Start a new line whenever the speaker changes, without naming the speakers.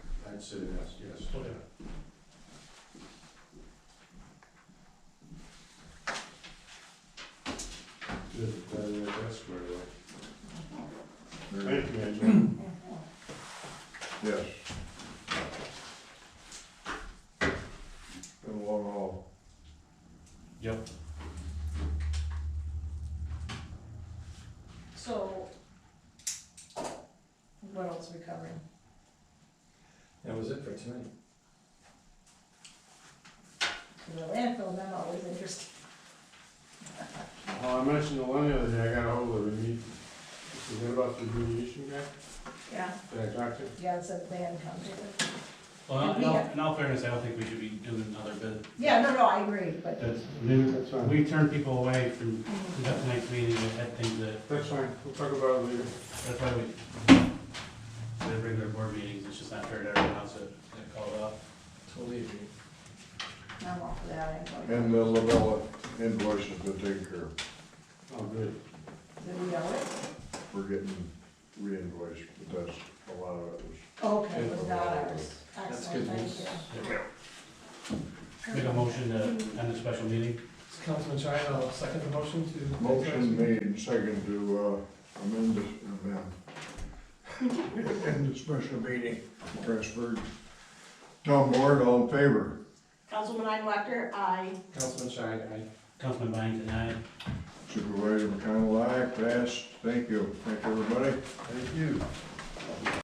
That's it, yes, yes.
Okay.
Good, glad we got that squared away.
Thank you, Angela.
Yes. Been a long haul.
Yep.
So, what else are we covering?
That was it for tonight.
The landfill memo is interesting.
Well, Uh, I mentioned the one the other day, I got ahold of him, he, he said, what about the remediation guy
Yeah,
that I talked to?
yeah, it's a plan come to it.
Well, in
We
all,
have-
in all fairness, I don't think we should be doing another bid.
Yeah, no, no, I agree, but,
That's,
That's fine,
we turned people away from that night's meeting that had things that,
that's fine, we'll talk about it later.
that's why we, the regular board meetings, it's just not fair to everyone else that, that called up.
Totally agree.
I'm off for that, I'm going.
uh,
And the Labella invoice has been taken care of.
Oh, good.
Did we know it?
We're getting re-invoiced, but that's a lot of it was.
Okay, it was not ours.
That's
Excellent,
good
thank
news.
you.
Make a motion to end the special meeting.
Is Councilman Shine, I'll second the motion to.
Motion made and second to uh, amend, this- amend. End the special meeting, Pressburg. Tom Ward, all in favor?
Councilman Einwalter, aye.
Councilman Shine, aye.
Councilman Byington, aye.
Supervisor McConnell, aye, passed. Thank you. Thank you, everybody.
Thank you.